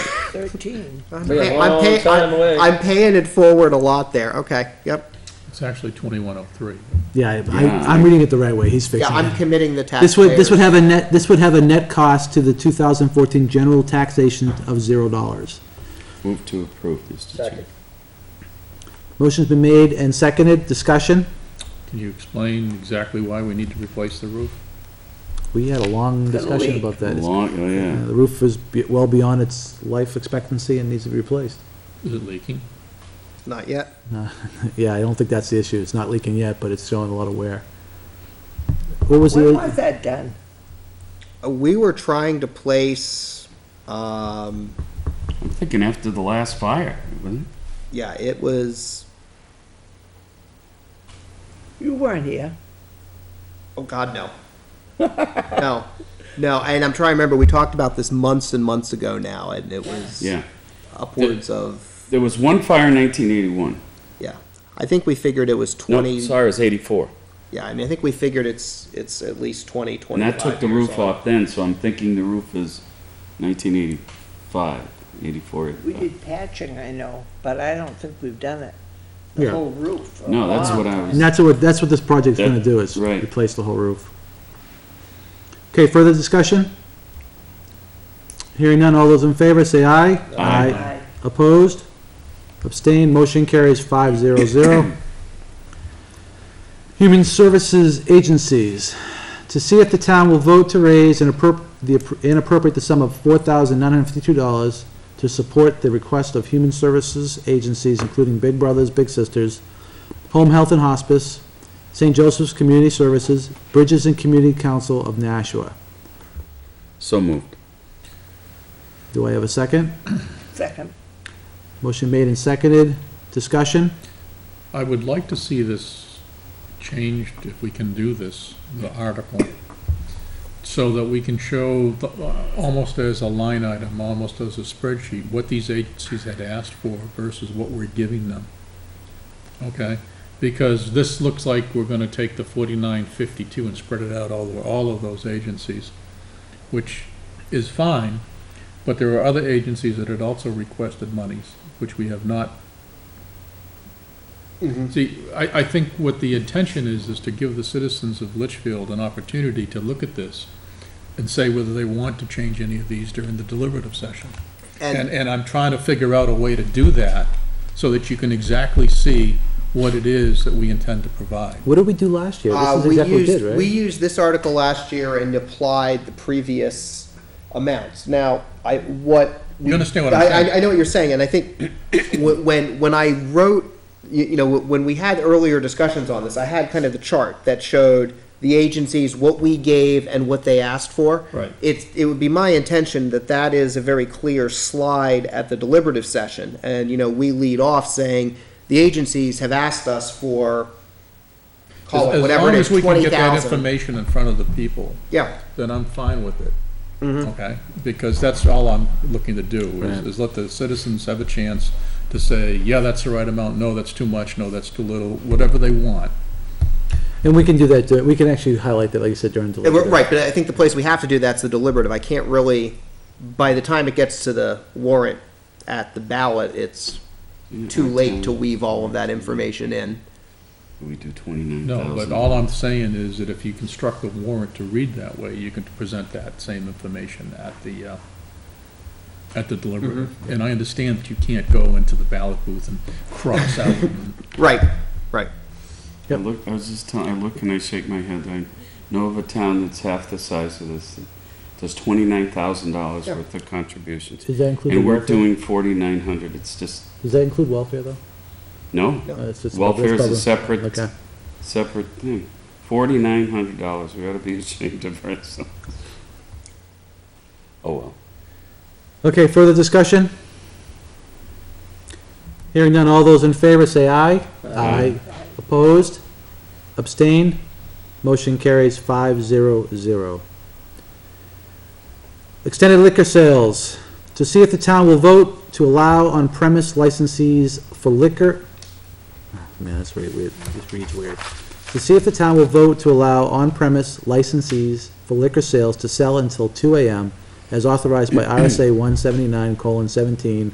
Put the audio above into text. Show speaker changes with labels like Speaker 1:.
Speaker 1: thirteen.
Speaker 2: I'm
Speaker 3: We got
Speaker 2: pay-
Speaker 3: one
Speaker 2: I'm pay-
Speaker 3: long time
Speaker 2: I'm-
Speaker 3: away.
Speaker 2: I'm paying it forward a lot there, okay, yep.
Speaker 4: It's actually twenty-one oh three.
Speaker 5: Yeah, I, I'm reading it the right way, he's
Speaker 2: Yeah,
Speaker 5: fixing
Speaker 2: I'm
Speaker 5: it.
Speaker 2: committing the taxpayers.
Speaker 5: This would, this would have a net, this would have a net cost to the 2014 general taxation of zero dollars.
Speaker 6: Move to approve this. Mr. Chair.
Speaker 3: Second.
Speaker 5: Motion's been made and seconded, discussion?
Speaker 4: Can you explain exactly why we need to replace the roof?
Speaker 5: We had a long discussion
Speaker 1: leak.
Speaker 5: about that. It's-
Speaker 6: Long, oh,
Speaker 5: uh,
Speaker 6: yeah.
Speaker 5: The roof is be- well beyond its life expectancy and needs to be replaced.
Speaker 4: Is it leaking?
Speaker 2: Not yet.
Speaker 5: Yeah, I don't think that's the issue, it's not leaking yet, but it's showing a lot of wear. What was
Speaker 1: When
Speaker 5: the,
Speaker 1: was that done?
Speaker 2: Uh, We were trying to place, um,
Speaker 6: I'm thinking after the last fire, wasn't it?
Speaker 2: yeah, it was,
Speaker 1: You weren't here.
Speaker 2: oh God, no. No, no, and I'm trying to remember, we talked about this months and months ago now, and it was
Speaker 6: Yeah.
Speaker 2: upwards of,
Speaker 6: There was one fire in 1981.
Speaker 2: yeah. I think we figured it was
Speaker 6: No,
Speaker 2: twenty,
Speaker 6: sorry, it was 84.
Speaker 2: yeah, I mean, I think we figured it's, it's at least twenty,
Speaker 6: And
Speaker 2: twenty-five
Speaker 6: that took the
Speaker 2: years
Speaker 6: roof
Speaker 2: old.
Speaker 6: off then, so I'm thinking the roof is 1985, 84.
Speaker 1: We
Speaker 6: 85.
Speaker 1: did patching, I know, but I don't think we've done it. The
Speaker 5: Yeah.
Speaker 1: whole roof. or
Speaker 6: No, that's what I
Speaker 1: lawn.
Speaker 5: and
Speaker 6: was,
Speaker 5: that's what, that's what this project's
Speaker 6: That-
Speaker 5: gonna do, is
Speaker 6: right.
Speaker 5: replace the whole roof. Okay, further discussion? Hearing none, all those in favor, say aye.
Speaker 6: Aye.
Speaker 1: Aye.
Speaker 5: Opposed? Abstained? Motion carries five zero zero. Human Services Agencies, to see if the town will vote to raise and appro, the, appro- and appropriate the sum of four thousand nine hundred fifty-two dollars to support the request of human services agencies, including Big Brothers Big Sisters, Home Health and Hospice, St. Joseph's Community Services, Bridges and Community Council of Nashua.
Speaker 6: so moved.
Speaker 5: Do I have a second?
Speaker 1: Second,
Speaker 5: Motion made and seconded. Discussion?
Speaker 4: I would like to see this changed, if we can do this, the article, so that we can show, the- uh, almost as a line item, almost as a spreadsheet, what these agencies had asked for versus what we're giving them. Okay? Because this looks like we're gonna take the forty-nine fifty-two and spread it out all, over all of those agencies, which is fine, but there are other agencies that had also requested monies, which we have not See, I, I think what the intention is, is to give the citizens of Litchfield an opportunity to look at this and say whether they want to change any of these during the deliberative session. And,
Speaker 2: And,
Speaker 4: and I'm trying to figure out a way to do that so that you can exactly see what it is that we intend to provide.
Speaker 5: What did we do last year?
Speaker 2: uh,
Speaker 5: This is
Speaker 2: we
Speaker 5: exactly what we did,
Speaker 2: used,
Speaker 5: right?
Speaker 2: we used this article last year and applied the previous amounts. Now, I, what.
Speaker 4: You understand what I'm
Speaker 2: I-
Speaker 4: saying?
Speaker 2: I, I know what you're saying, and I think wh- when, when I wrote, you, you know, when we had earlier discussions on this, I had kind of the chart that showed the agencies, what we gave and what they asked for.
Speaker 4: Right.
Speaker 2: It's, it would be my intention that that is a very clear slide at the deliberative session. And, you know, we lead off saying, the agencies have asked us for, call
Speaker 4: As-
Speaker 2: it whatever it is,
Speaker 4: As long as we
Speaker 2: twenty
Speaker 4: can get that
Speaker 2: thousand.
Speaker 4: information in front of the people,
Speaker 2: Yeah,
Speaker 4: then I'm fine with it. Okay? Because that's all I'm looking to do, is,
Speaker 6: Right.
Speaker 4: is let the citizens have a chance to say, yeah, that's the right amount, no, that's too much, no, that's too little, whatever they want.
Speaker 5: And we can do that, dur- we can actually highlight that, like you said, during
Speaker 2: Yeah, we're-
Speaker 5: deliberative.
Speaker 2: right, but I think the place we have to do that's the deliberative. I can't really, by the time it gets to the warrant at the ballot, it's too late to weave all of that information in.
Speaker 6: We do 29,000.
Speaker 4: No, but all I'm saying is that if you construct the warrant to read that way, you can present that same information at the, uh, at the deliberative. And I understand that you can't go into the ballot booth and cross out.
Speaker 2: Right, right.
Speaker 6: I look, I was just telling, I look and I shake my head. I know of a town that's half the size of this, that does $29,000
Speaker 2: Yeah.
Speaker 6: worth of contributions.
Speaker 5: Does that include
Speaker 6: And we're
Speaker 5: welfare?
Speaker 6: doing 4,900. It's just,
Speaker 5: Does that include welfare, though?
Speaker 6: no,
Speaker 5: Uh, it's just-
Speaker 6: Welfare is a
Speaker 5: that's probably-
Speaker 6: separate,
Speaker 5: Okay.
Speaker 6: separate thing. Forty-nine hundred dollars, we ought to be ashamed of ourselves. Oh, well.
Speaker 5: Okay, further discussion? Hearing none, all those in favor say aye. Aye. Opposed? Abstained? Motion carries five zero zero. Extended liquor sales, to see if the town will vote to allow on-premise licensees for liquor. Ah, Man, that's really weird, this reads weird. To see if the town will vote to allow on-premise licensees for liquor sales to sell until two AM as authorized by RSA one seventy-nine colon seventeen